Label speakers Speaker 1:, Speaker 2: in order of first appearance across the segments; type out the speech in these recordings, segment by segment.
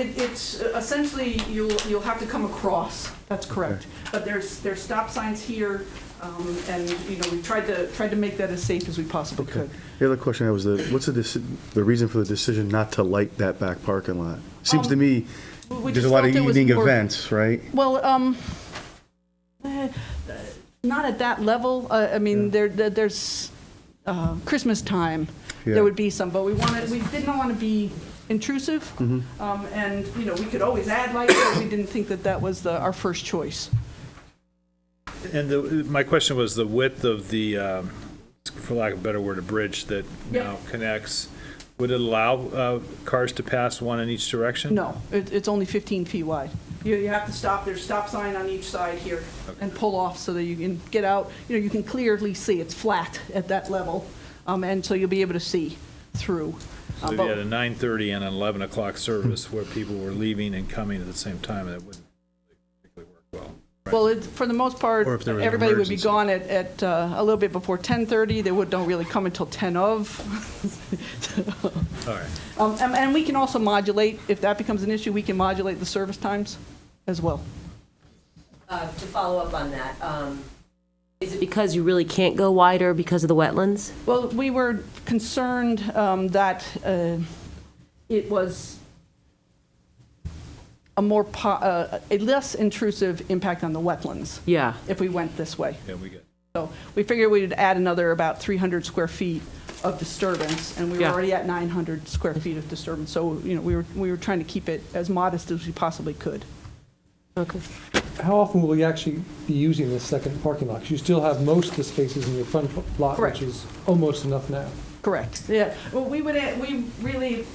Speaker 1: It- It's uh, essentially, you'll, you'll have to come across, that's correct. But there's, there's stop signs here, um, and, you know, we tried to, tried to make that as safe as we possibly
Speaker 2: Okay.
Speaker 1: could.
Speaker 2: The other question I had was the, what's the, deci- the reason for the decision not to light that back parking lot? Seems to
Speaker 1: Um,
Speaker 2: me,
Speaker 1: We- we
Speaker 2: there's a
Speaker 1: just
Speaker 2: lot of
Speaker 1: felt it was
Speaker 2: evening
Speaker 1: more-
Speaker 2: events, right?
Speaker 1: Well, um, eh, not at that level. Uh, I mean, there, there- there's uh, Christmas time,
Speaker 2: Yeah.
Speaker 1: there would be some, but we wanted, we didn't want to be intrusive.
Speaker 2: Mm-hmm.
Speaker 1: Um, And, you know, we could always add lights, but we didn't think that that was the- our first choice.
Speaker 3: And the, my question was the width of the, um, for lack of a better word, a bridge that
Speaker 1: Yep.
Speaker 3: now connects, would it allow uh, cars to pass one in each direction?
Speaker 1: No, it, it's only 15 feet wide. You, you have to stop, there's stop sign on each side here, and pull off so that you can get out, you know, you can clearly see, it's flat at that level, um, and so you'll be able to see through.
Speaker 3: So
Speaker 1: Uh,
Speaker 3: if
Speaker 1: but-
Speaker 3: you had a 9:30 and an 11 o'clock service where people were leaving and coming at the same time, that wouldn't particularly work well.
Speaker 1: Well, it, for the most part,
Speaker 3: Or if there was an
Speaker 1: everybody would be
Speaker 3: emergency.
Speaker 1: gone at, at, uh, a little bit before 10:30, they would, don't really come until 10 of.
Speaker 3: All right.
Speaker 1: Um, and, and we can also modulate, if that becomes an issue, we can modulate the service times as well.
Speaker 4: Uh, To follow up on that, um, is it because you really can't go wider because of the wetlands?
Speaker 1: Well, we were concerned um, that uh, it was a more, po- uh, a less intrusive impact on the wetlands
Speaker 4: Yeah.
Speaker 1: if we went this way.
Speaker 3: Yeah, we get,
Speaker 1: So we figured we'd add another about 300 square feet of disturbance, and we were
Speaker 4: Yeah.
Speaker 1: already at 900 square feet of disturbance. So, you know, we were, we were trying to keep it as modest as we possibly could.
Speaker 4: Okay.
Speaker 5: How often will you actually be using this second parking lot? 'Cause you still have most of the spaces in your front lot,
Speaker 1: Correct.
Speaker 5: which is almost enough now.
Speaker 1: Correct. Yeah, well, we would, we really,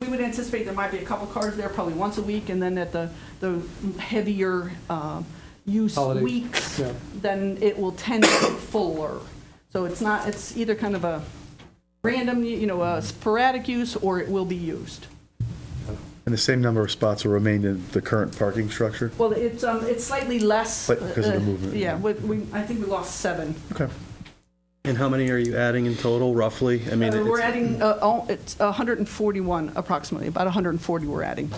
Speaker 1: we would anticipate there might be a couple cars there probably once a week, and then at the, the heavier um, use
Speaker 5: Holidays,
Speaker 1: weeks,
Speaker 5: yeah.
Speaker 1: then it will tend to be fuller. So it's not, it's either kind of a random, you know, a sporadic use, or it will be used.
Speaker 2: And the same number of spots will remain in the current parking structure?
Speaker 1: Well, it's, um, it's slightly less.
Speaker 2: But because of the
Speaker 1: uh,
Speaker 2: movement,
Speaker 1: Yeah,
Speaker 2: yeah.
Speaker 1: we, we, I think we lost seven.
Speaker 2: Okay.
Speaker 6: And how many are you adding in total, roughly? I mean,
Speaker 1: Uh, We're
Speaker 6: it's-
Speaker 1: adding, uh, oh, it's 141 approximately, about 140 we're adding.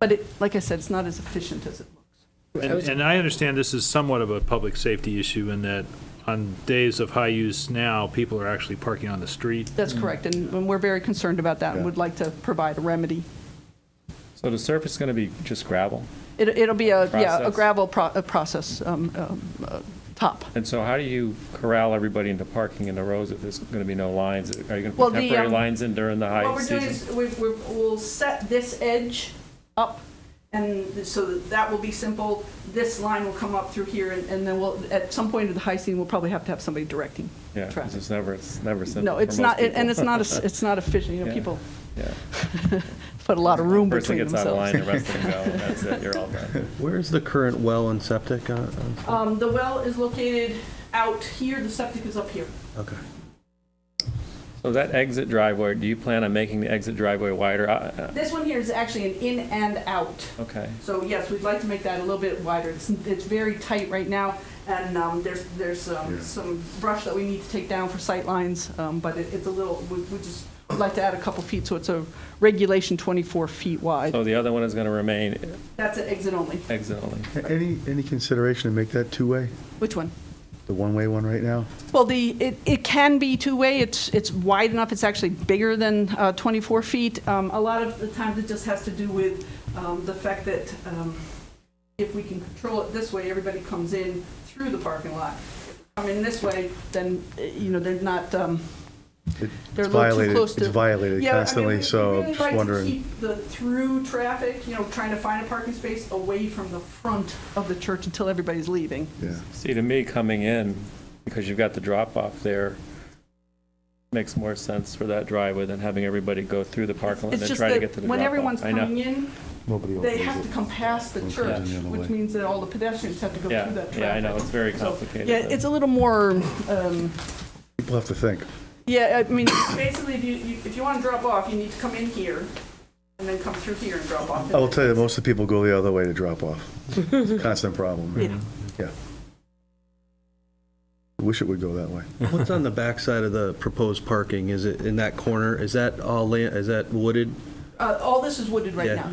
Speaker 1: But it, like I said, it's not as efficient as it looks.
Speaker 3: And and I understand this is somewhat of a public safety issue in that on days of high use now, people are actually parking on the street.
Speaker 1: That's correct, and and we're very concerned about that and
Speaker 2: Yeah.
Speaker 1: would like to provide a remedy.
Speaker 7: So the surface is going to be just gravel?
Speaker 1: It- It'll be a, yeah, a
Speaker 7: Process.
Speaker 1: gravel pro- a process um, um, uh, top.
Speaker 7: And so how do you corral everybody into parking in the rows if there's going to be no lines? Are you going to
Speaker 1: Well,
Speaker 7: put
Speaker 1: the,
Speaker 7: temporary
Speaker 1: um,
Speaker 7: lines in during the
Speaker 1: What
Speaker 7: high
Speaker 1: we're doing is,
Speaker 7: season?
Speaker 1: we- we- we'll set this edge up, and so that that will be simple. This line will come up through here, and and then we'll, at some point in the high season, we'll probably have to have somebody directing
Speaker 7: Yeah, 'cause
Speaker 1: traffic.
Speaker 7: it's never, it's never simple
Speaker 1: No,
Speaker 7: for
Speaker 1: it's
Speaker 7: most
Speaker 1: not,
Speaker 7: people.
Speaker 1: and it's not, a- it's not efficient, you know,
Speaker 7: Yeah.
Speaker 1: people
Speaker 7: Yeah.
Speaker 1: put a lot of room
Speaker 7: Person
Speaker 1: between
Speaker 7: gets out of line,
Speaker 1: themselves.
Speaker 7: the rest of them go, and that's it, you're all done.
Speaker 6: Where is the current well and septic? on- on-
Speaker 1: Um, the well is located out here, the septic is up here.
Speaker 6: Okay.
Speaker 7: So that exit driveway, do you plan on making the exit driveway wider? I- I-
Speaker 1: This one here is actually an in and out.
Speaker 7: Okay.
Speaker 1: So yes, we'd like to make that a little bit wider. It's, it's very tight right now, and, um, there's, there's, um,
Speaker 2: Yeah.
Speaker 1: some brush that we need to take down for sight lines. um, but it, it's a little, we, we just would like to add a couple feet, so it's a regulation twenty-four feet wide.
Speaker 7: So the other one is going to remain
Speaker 1: That's an exit only.
Speaker 7: exit only?
Speaker 2: A- Any, any consideration to make that two-way,
Speaker 1: Which one?
Speaker 2: the one-way one right now?
Speaker 1: Well, the, it, it can be two-way, it's, it's wide enough, it's actually bigger than uh, 24 feet. Um, A lot of the times it just has to do with um, the fact that um, if we can control it this way, everybody comes in through the parking lot. If we Come in this way, then, uh, you know, they're not, um,
Speaker 2: It-
Speaker 1: They're a little
Speaker 2: It's
Speaker 1: too
Speaker 2: violated,
Speaker 1: close to-
Speaker 2: it's violated
Speaker 1: yeah, I mean, we-
Speaker 2: constantly, so I'm just
Speaker 1: We really
Speaker 2: wondering.
Speaker 1: like to keep the through traffic, you know, trying to find a parking space away from the front of the church until everybody's leaving.
Speaker 2: Yeah.
Speaker 7: See, to me, coming in, because you've got the drop-off there, makes more sense for that driveway than having everybody go through the parking lot and
Speaker 1: It's
Speaker 7: then
Speaker 1: just
Speaker 7: try to get
Speaker 1: that
Speaker 7: to the
Speaker 1: when everyone's
Speaker 7: drop-off. I know.
Speaker 1: coming in,
Speaker 2: Nobody
Speaker 1: They
Speaker 2: opens
Speaker 1: have to
Speaker 2: it.
Speaker 1: come past the
Speaker 2: One
Speaker 1: church,
Speaker 2: comes in the other
Speaker 1: which
Speaker 2: way.
Speaker 1: means that all the pedestrians have to go
Speaker 7: Yeah,
Speaker 1: through that traffic.
Speaker 7: yeah, I know, it's very
Speaker 1: So,
Speaker 7: complicated.
Speaker 1: Yeah, it's a little more, um,
Speaker 2: People have to think.
Speaker 1: yeah, I mean, basically, if you, you- if you want to drop off, you need to come in here and then come through here and drop off.
Speaker 2: I will tell you, that most of the people go the other way to drop off. It's a Constant problem. Yeah. Wish it would go that way.
Speaker 6: What's on the backside of the proposed parking? Is it in that corner? Is that all, land? is that wooded?
Speaker 1: Uh, All this is wooded right
Speaker 6: Yeah.
Speaker 1: now,